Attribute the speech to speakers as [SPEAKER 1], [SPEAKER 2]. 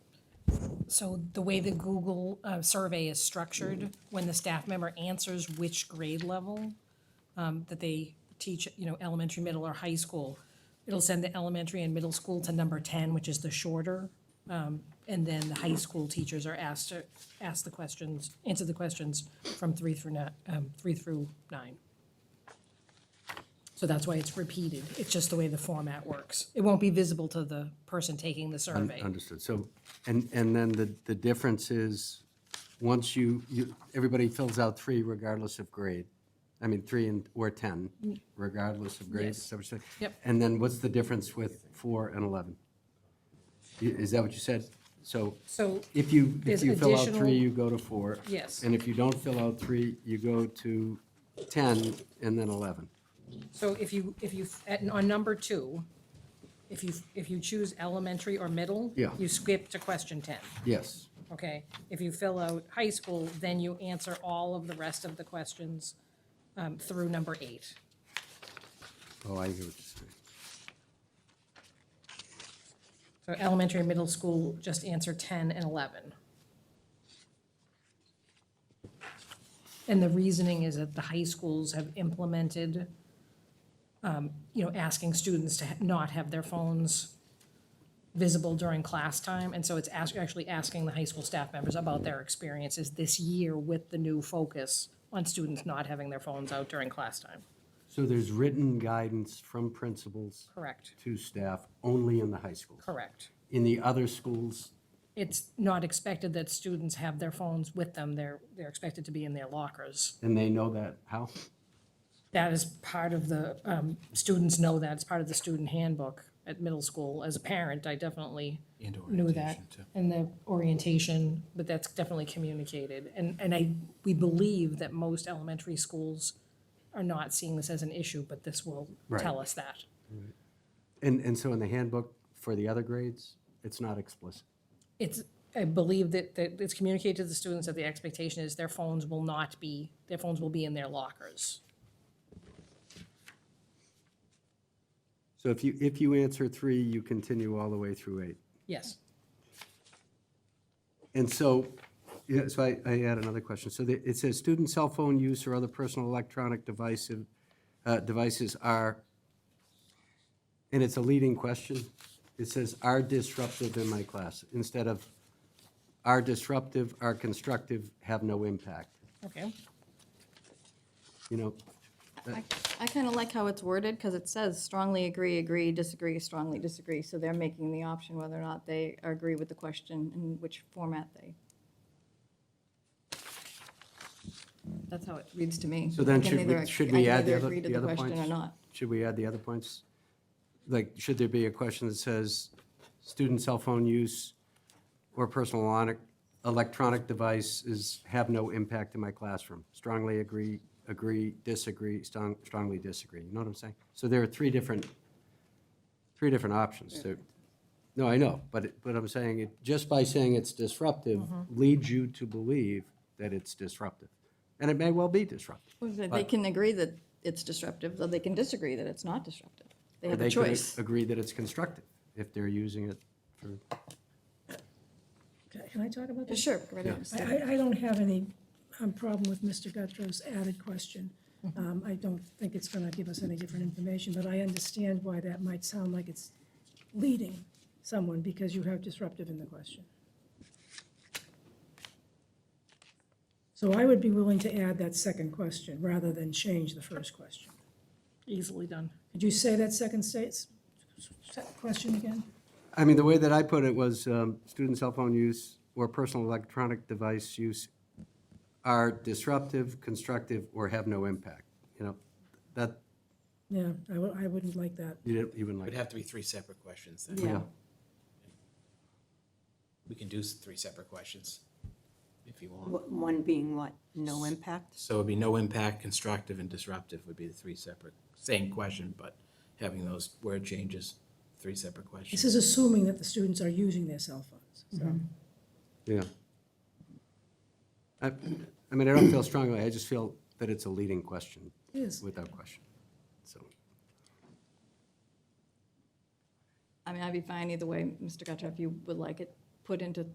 [SPEAKER 1] So the way the Google uh, survey is structured, when the staff member answers which grade level um, that they teach, you know, elementary, middle, or high school, it'll send the elementary and middle school to number 10, which is the shorter. um, And then the high school teachers are asked to, ask the questions, answer the questions from three through nine, um, three through nine. So that's why it's repeated. It's just the way the format works. It won't be visible to the person taking the survey.
[SPEAKER 2] Understood. So, and, and then the, the difference is, once you, you, everybody fills out three regardless of grade. I mean, three and, or 10, regardless of grade. is that what you said?
[SPEAKER 1] Mm. Yep.
[SPEAKER 2] And then what's the difference with four and 11? I- Is that what you said? So
[SPEAKER 1] So
[SPEAKER 2] if you, if
[SPEAKER 1] There's
[SPEAKER 2] you fill out three,
[SPEAKER 1] additional-
[SPEAKER 2] you go to four.
[SPEAKER 1] Yes.
[SPEAKER 2] And if you don't fill out three, you go to 10 and then 11.
[SPEAKER 1] So if you, if you, at- on number two, if you, if you choose elementary or middle,
[SPEAKER 2] Yeah.
[SPEAKER 1] you skip to question 10,
[SPEAKER 2] Yes.
[SPEAKER 1] okay? If you fill out high school, then you answer all of the rest of the questions um, through number eight.
[SPEAKER 2] Oh, I hear what you're saying.
[SPEAKER 1] So elementary and middle school, just answer 10 and 11. And the reasoning is that the high schools have implemented, um, you know, asking students to ha- not have their phones visible during class time. And so it's ask- actually asking the high school staff members about their experiences this year with the new focus on students not having their phones out during class time.
[SPEAKER 2] So there's written guidance from principals
[SPEAKER 1] Correct,
[SPEAKER 2] to staff only in the high schools.
[SPEAKER 1] correct.
[SPEAKER 2] In the other schools,
[SPEAKER 1] it's not expected that students have their phones with them. They're, they're expected to be in their lockers.
[SPEAKER 2] and they know that, how?
[SPEAKER 1] That is part of the, um, students know that, it's part of the student handbook at middle school. As a parent, I definitely
[SPEAKER 3] And
[SPEAKER 1] knew that.
[SPEAKER 3] orientation, too.
[SPEAKER 1] And the orientation, but that's definitely communicated. And, and I, we believe that most elementary schools are not seeing this as an issue, but this will
[SPEAKER 2] Right.
[SPEAKER 1] tell us that.
[SPEAKER 2] And, and so in the handbook for the other grades, it's not explicit.
[SPEAKER 1] It's, I believe that, that it's communicated to the students that the expectation is their phones will not be, their phones will be in their lockers.
[SPEAKER 2] So if you, if you answer three, you continue all the way through eight.
[SPEAKER 1] Yes.
[SPEAKER 2] And so, yeah, so I, I had another question. So the- it says, student cell phone use or other personal electronic divisive, uh, devices are, and it's a leading question. It says, are disruptive in my class, instead of are disruptive, are constructive, have no impact.
[SPEAKER 1] Okay.
[SPEAKER 2] You know,
[SPEAKER 4] I- I kind of like how it's worded, because it says strongly agree, agree, disagree, strongly disagree. So they're making the option whether or not they agree with the question and which format they. That's how it reads to me.
[SPEAKER 2] so then
[SPEAKER 4] I can
[SPEAKER 2] should
[SPEAKER 4] either
[SPEAKER 2] we,
[SPEAKER 4] ag-
[SPEAKER 2] should
[SPEAKER 4] I
[SPEAKER 2] we
[SPEAKER 4] can
[SPEAKER 2] add the
[SPEAKER 4] either
[SPEAKER 2] other,
[SPEAKER 4] agree to
[SPEAKER 2] the other
[SPEAKER 4] question
[SPEAKER 2] points?
[SPEAKER 4] Or not.
[SPEAKER 2] Should we add the other points? Like, should there be a question that says, student cell phone use or personal electronic- electronic devices have no impact in my classroom? Strongly agree, agree, disagree, strong- strongly disagree, you know what I'm saying? So there are three different, three different options. There- No, I know, but, it- but I'm saying, it just by saying it's disruptive leads you to believe that it's disruptive. And it may well be disruptive.
[SPEAKER 4] Well, They they can agree that it's disruptive, though they can disagree that it's not disruptive. They
[SPEAKER 2] Or
[SPEAKER 4] have
[SPEAKER 2] they
[SPEAKER 4] a
[SPEAKER 2] could
[SPEAKER 4] choice.
[SPEAKER 2] Agree that it's constructive, if they're using it for,
[SPEAKER 5] Can I- Can I talk about this?
[SPEAKER 4] Sure, go right ahead.
[SPEAKER 5] I,
[SPEAKER 4] Steph.
[SPEAKER 5] I- I don't have any um, problem with Mr. Guttrow's added question. Um, I don't think it's going to give us any different information, but I understand why that might sound like it's leading someone because you have disruptive in the question. So I would be willing to add that second question rather than change the first question.
[SPEAKER 1] Easily done.
[SPEAKER 5] Could you say that second state's question again?
[SPEAKER 2] I mean, the way that I put it was, um, student cell phone use or personal electronic device use are disruptive, constructive, or have no impact, you know? That,
[SPEAKER 5] Yeah, I wo- I wouldn't like that.
[SPEAKER 2] you didn't even like,
[SPEAKER 3] It'd have to be three separate questions then.
[SPEAKER 4] Yeah.
[SPEAKER 3] We can do s- three separate questions if you want.
[SPEAKER 6] Wh- One being what? No impact?
[SPEAKER 3] So it'd be no impact, constructive and disruptive would be the three separate, same question, but having those word changes, three separate
[SPEAKER 5] This
[SPEAKER 3] questions.
[SPEAKER 5] is assuming that the students are using their cell phones. so.
[SPEAKER 2] yeah. I, I mean, I don't feel strongly, I just feel that it's a leading question,
[SPEAKER 5] It is.
[SPEAKER 2] without question, so.
[SPEAKER 4] I mean, I'd be fine either way, Mr. Guttrow, if you would like it put into